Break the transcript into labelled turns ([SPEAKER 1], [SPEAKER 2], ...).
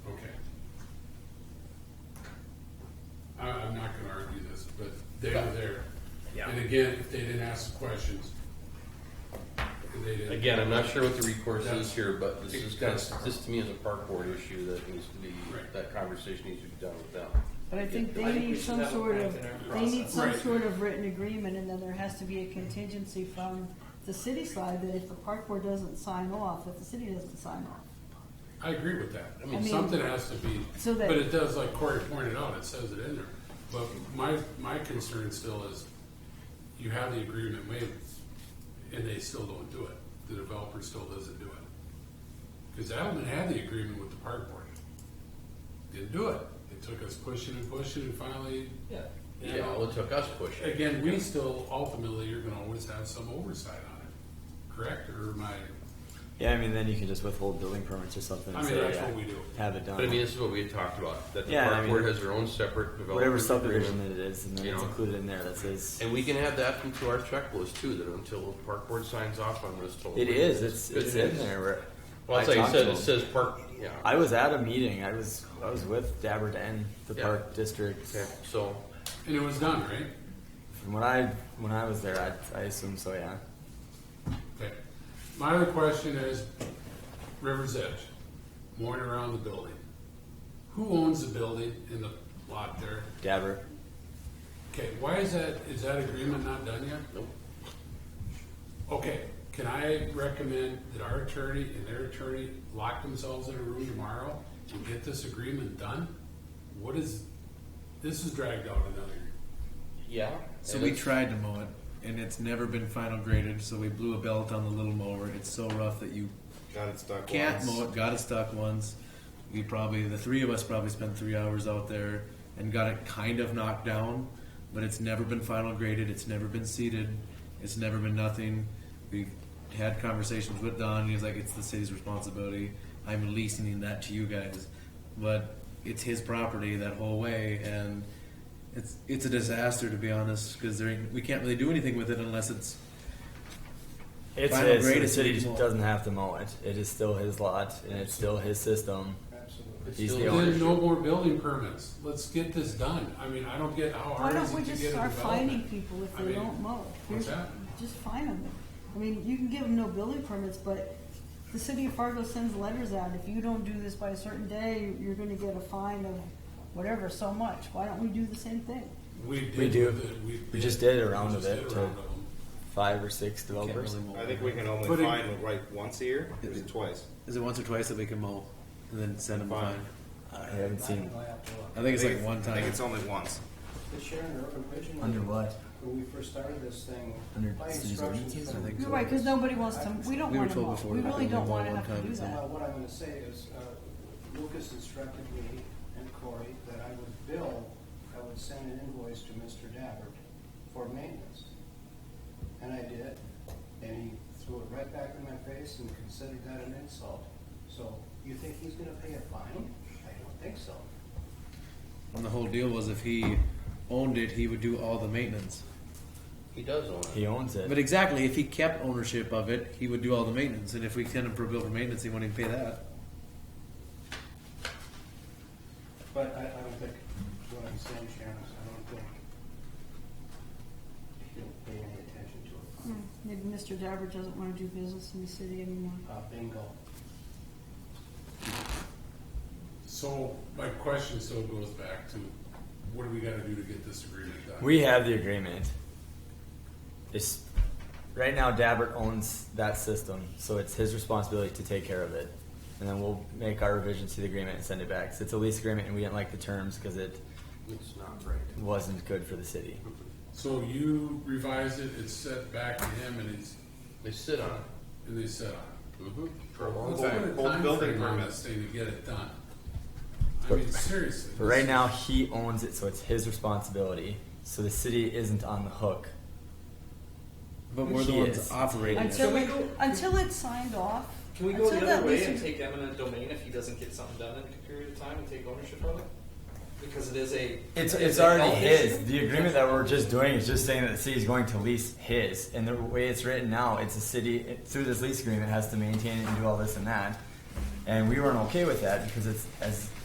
[SPEAKER 1] is, but they were there.
[SPEAKER 2] Yeah.
[SPEAKER 1] And again, if they didn't ask the questions, they didn't.
[SPEAKER 3] Again, I'm not sure what the recourse
[SPEAKER 1] That's-
[SPEAKER 3] is here, but this is kind
[SPEAKER 1] that's-
[SPEAKER 3] of, this to me is a park board issue that needs to be,
[SPEAKER 1] Right.
[SPEAKER 3] that conversation needs to be done with them.
[SPEAKER 4] But I think
[SPEAKER 2] I
[SPEAKER 4] they
[SPEAKER 2] think we
[SPEAKER 4] need
[SPEAKER 2] should
[SPEAKER 4] some
[SPEAKER 2] have it
[SPEAKER 4] sort
[SPEAKER 2] back
[SPEAKER 4] of,
[SPEAKER 2] in our
[SPEAKER 4] they need
[SPEAKER 2] process.
[SPEAKER 4] some
[SPEAKER 1] Right.
[SPEAKER 4] sort of written agreement, and then there has to be a contingency from the city side that if the park board doesn't sign off, that the city doesn't sign off.
[SPEAKER 1] I agree with that. I
[SPEAKER 4] I
[SPEAKER 1] mean,
[SPEAKER 4] mean-
[SPEAKER 1] something has to be,
[SPEAKER 4] So that-
[SPEAKER 1] but it does, like Corey pointed out, it says it in there. But my, my concern still is, you have the agreement waived, and they still don't do it. The developer still doesn't do it. Because Adelman had the agreement with the park board. Didn't do it. It took us pushing and pushing, and finally,
[SPEAKER 3] Yeah.
[SPEAKER 1] Yeah.
[SPEAKER 3] Yeah, well, it took us pushing.
[SPEAKER 1] again, we still, ultimately, you're gonna always have some oversight on it, correct? Or my,
[SPEAKER 5] Yeah, I mean, then you can just withhold building permits or something.
[SPEAKER 1] I
[SPEAKER 5] and
[SPEAKER 1] mean,
[SPEAKER 5] say,
[SPEAKER 1] that's
[SPEAKER 5] yeah,
[SPEAKER 1] what we do.
[SPEAKER 5] Have it done.
[SPEAKER 3] But I mean, this is what we had talked about, that the
[SPEAKER 5] Yeah, I
[SPEAKER 3] park
[SPEAKER 5] mean-
[SPEAKER 3] board has their own separate development.
[SPEAKER 5] Whatever subdivision
[SPEAKER 3] agreement.
[SPEAKER 5] that it is, and then
[SPEAKER 3] You
[SPEAKER 5] it's
[SPEAKER 3] know.
[SPEAKER 5] included in there. That says
[SPEAKER 3] And we can add that into our checklist too, that until the park board signs off on this total.
[SPEAKER 5] it is. It's it's
[SPEAKER 3] It
[SPEAKER 5] in
[SPEAKER 3] is.
[SPEAKER 5] there. Where
[SPEAKER 3] Well, it's like
[SPEAKER 5] I
[SPEAKER 3] you
[SPEAKER 5] talked
[SPEAKER 3] said,
[SPEAKER 5] to
[SPEAKER 3] it
[SPEAKER 5] them.
[SPEAKER 3] says park, yeah.
[SPEAKER 5] I was at a meeting. I was I was with Dabbert and the
[SPEAKER 3] Yeah.
[SPEAKER 5] Park District.
[SPEAKER 3] Okay, So,
[SPEAKER 1] and it was done, right?
[SPEAKER 5] From when I when I was there, I I assume so. Yeah.
[SPEAKER 1] Okay. My other question is, River's Edge, mooring around the building. Who owns the building in the lot there?
[SPEAKER 5] Dabbert.
[SPEAKER 1] Okay, why is that, is that agreement not done yet?
[SPEAKER 3] nope.
[SPEAKER 1] Okay, can I recommend that our attorney and their attorney lock themselves in a room tomorrow and get this agreement done? What is, this is dragged out another year.
[SPEAKER 3] Yeah.
[SPEAKER 6] So
[SPEAKER 3] and
[SPEAKER 6] we
[SPEAKER 3] it's-
[SPEAKER 6] tried to mow it, and it's never been final graded. So we blew a belt on the little mower. It's so rough that you
[SPEAKER 7] Got it stuck
[SPEAKER 6] can't
[SPEAKER 7] once.
[SPEAKER 6] mow it. Got it stuck once. We probably the three of us probably spent three hours out there and got it kind of knocked down, but it's never been final graded. It's never been seeded. It's never been nothing. We had conversations with Don. And he was like, "It's the city's responsibility. I'm leasing that to you guys, but it's his property that whole way and." It's, it's a disaster to be honest because we can't really do anything with it unless it's
[SPEAKER 5] It's
[SPEAKER 6] Final
[SPEAKER 5] his. so
[SPEAKER 6] grade
[SPEAKER 5] The
[SPEAKER 6] is
[SPEAKER 5] city
[SPEAKER 6] reasonable.
[SPEAKER 5] doesn't have to mow it. It is still his lot, and it's still his system.
[SPEAKER 3] it's
[SPEAKER 5] He's
[SPEAKER 3] still
[SPEAKER 5] the
[SPEAKER 3] an
[SPEAKER 5] owner.
[SPEAKER 1] Then
[SPEAKER 3] issue.
[SPEAKER 1] no more building permits. Let's get this done. I mean, I don't get how
[SPEAKER 4] Why
[SPEAKER 1] hard is
[SPEAKER 4] don't we
[SPEAKER 1] it to
[SPEAKER 4] just
[SPEAKER 1] get a
[SPEAKER 4] start fining
[SPEAKER 1] development?
[SPEAKER 4] people if
[SPEAKER 1] I
[SPEAKER 4] they
[SPEAKER 1] mean,
[SPEAKER 4] don't mow?
[SPEAKER 1] what's
[SPEAKER 4] Here's-
[SPEAKER 1] that?
[SPEAKER 4] Just fine them. I mean, you can give them no building permits, but the city of Fargo sends letters out, if you don't do this by a certain day, you're gonna get a fine of whatever, so much. Why don't we do the same thing?
[SPEAKER 1] We did.
[SPEAKER 5] We do.
[SPEAKER 1] with it.
[SPEAKER 5] We just did a round
[SPEAKER 1] We
[SPEAKER 5] of
[SPEAKER 1] just
[SPEAKER 5] it
[SPEAKER 1] did a
[SPEAKER 5] to-
[SPEAKER 1] round of them.
[SPEAKER 5] Five or six
[SPEAKER 6] can't
[SPEAKER 5] developers.
[SPEAKER 6] really mow
[SPEAKER 7] I
[SPEAKER 6] it.
[SPEAKER 7] think we can only
[SPEAKER 1] But it-
[SPEAKER 7] find like once a year, or is it twice?
[SPEAKER 6] Is it once or twice that we can mow and then send them
[SPEAKER 7] Fine.
[SPEAKER 6] behind?
[SPEAKER 5] I haven't seen
[SPEAKER 6] I think it's
[SPEAKER 7] I
[SPEAKER 6] like one
[SPEAKER 7] I think
[SPEAKER 6] time.
[SPEAKER 7] it's only once.
[SPEAKER 8] But Sharon, or open pigeon.
[SPEAKER 5] under what.
[SPEAKER 8] When we first started this thing,
[SPEAKER 5] Under
[SPEAKER 8] my
[SPEAKER 5] city's
[SPEAKER 8] instructions
[SPEAKER 5] ordinances, I
[SPEAKER 8] from-
[SPEAKER 6] think
[SPEAKER 4] You're right, cause nobody wants to, we don't
[SPEAKER 6] We were
[SPEAKER 4] wanna
[SPEAKER 6] told
[SPEAKER 4] mow.
[SPEAKER 6] before
[SPEAKER 4] We
[SPEAKER 6] we
[SPEAKER 4] really
[SPEAKER 6] could
[SPEAKER 4] don't
[SPEAKER 6] only mow
[SPEAKER 4] wanna
[SPEAKER 6] one
[SPEAKER 4] have to
[SPEAKER 6] time.
[SPEAKER 4] do
[SPEAKER 8] Well,
[SPEAKER 4] that.
[SPEAKER 8] Uh, what I'm gonna say is, uh, Lucas instructed me and Corey that I would bill, I would send an invoice to Mr. Dabbert for maintenance. And I did, and he threw it right back in my face and considered that an insult. So, you think he's gonna pay a fine? I don't think so.
[SPEAKER 6] And the whole deal was if he owned it, he would do all the maintenance.
[SPEAKER 3] He does own it.
[SPEAKER 5] He owns it.
[SPEAKER 6] But exactly, if he kept ownership of it, he would do all the maintenance. And if we send him for a bill for maintenance, he won't even pay that.
[SPEAKER 8] But I, I don't think, what I'm saying, Sharon, is I don't think he'll pay any attention to it.
[SPEAKER 4] Hmm, Maybe Mr. Dabbert doesn't wanna do business in the city anymore.
[SPEAKER 8] Uh, bingo.
[SPEAKER 1] So my question still goes back to, what do we gotta do to get this agreement done?
[SPEAKER 5] We have the agreement. It's right now Dabbert owns that system, so it's his responsibility to take care of it. And then we'll make our revisions to the agreement and send it back. So it's a lease agreement and we didn't like the terms because it
[SPEAKER 3] It's not right.
[SPEAKER 5] wasn't good for the city.
[SPEAKER 1] So you revise it, it's sent back to him and he's,
[SPEAKER 3] They sit on it.
[SPEAKER 1] and they said, "Ah,
[SPEAKER 3] Mm-hmm.
[SPEAKER 1] for a long
[SPEAKER 7] time. Hold building
[SPEAKER 1] on
[SPEAKER 7] permit.
[SPEAKER 1] this thing to get it done. I mean, seriously.
[SPEAKER 5] But right now he owns it, so it's his responsibility. So the city isn't on the hook.
[SPEAKER 6] But we're the
[SPEAKER 5] He
[SPEAKER 6] ones
[SPEAKER 5] is.
[SPEAKER 6] operating it.
[SPEAKER 4] Until, until it's signed off.
[SPEAKER 2] Can we go
[SPEAKER 4] until
[SPEAKER 2] the
[SPEAKER 4] that
[SPEAKER 2] other way
[SPEAKER 4] lease
[SPEAKER 2] and
[SPEAKER 4] ag-
[SPEAKER 2] take eminent domain if he doesn't get something done in a period of time and take ownership of it? Because it is a.
[SPEAKER 5] It's,
[SPEAKER 2] it
[SPEAKER 5] it's
[SPEAKER 2] is a
[SPEAKER 5] already
[SPEAKER 2] health
[SPEAKER 5] his.
[SPEAKER 2] issue.
[SPEAKER 5] The agreement that we're just doing is just saying that the city's going to lease his. And the way it's written now, it's a city, it- through this lease agreement, has to maintain it and do all this and that. And we weren't okay with that because it's, as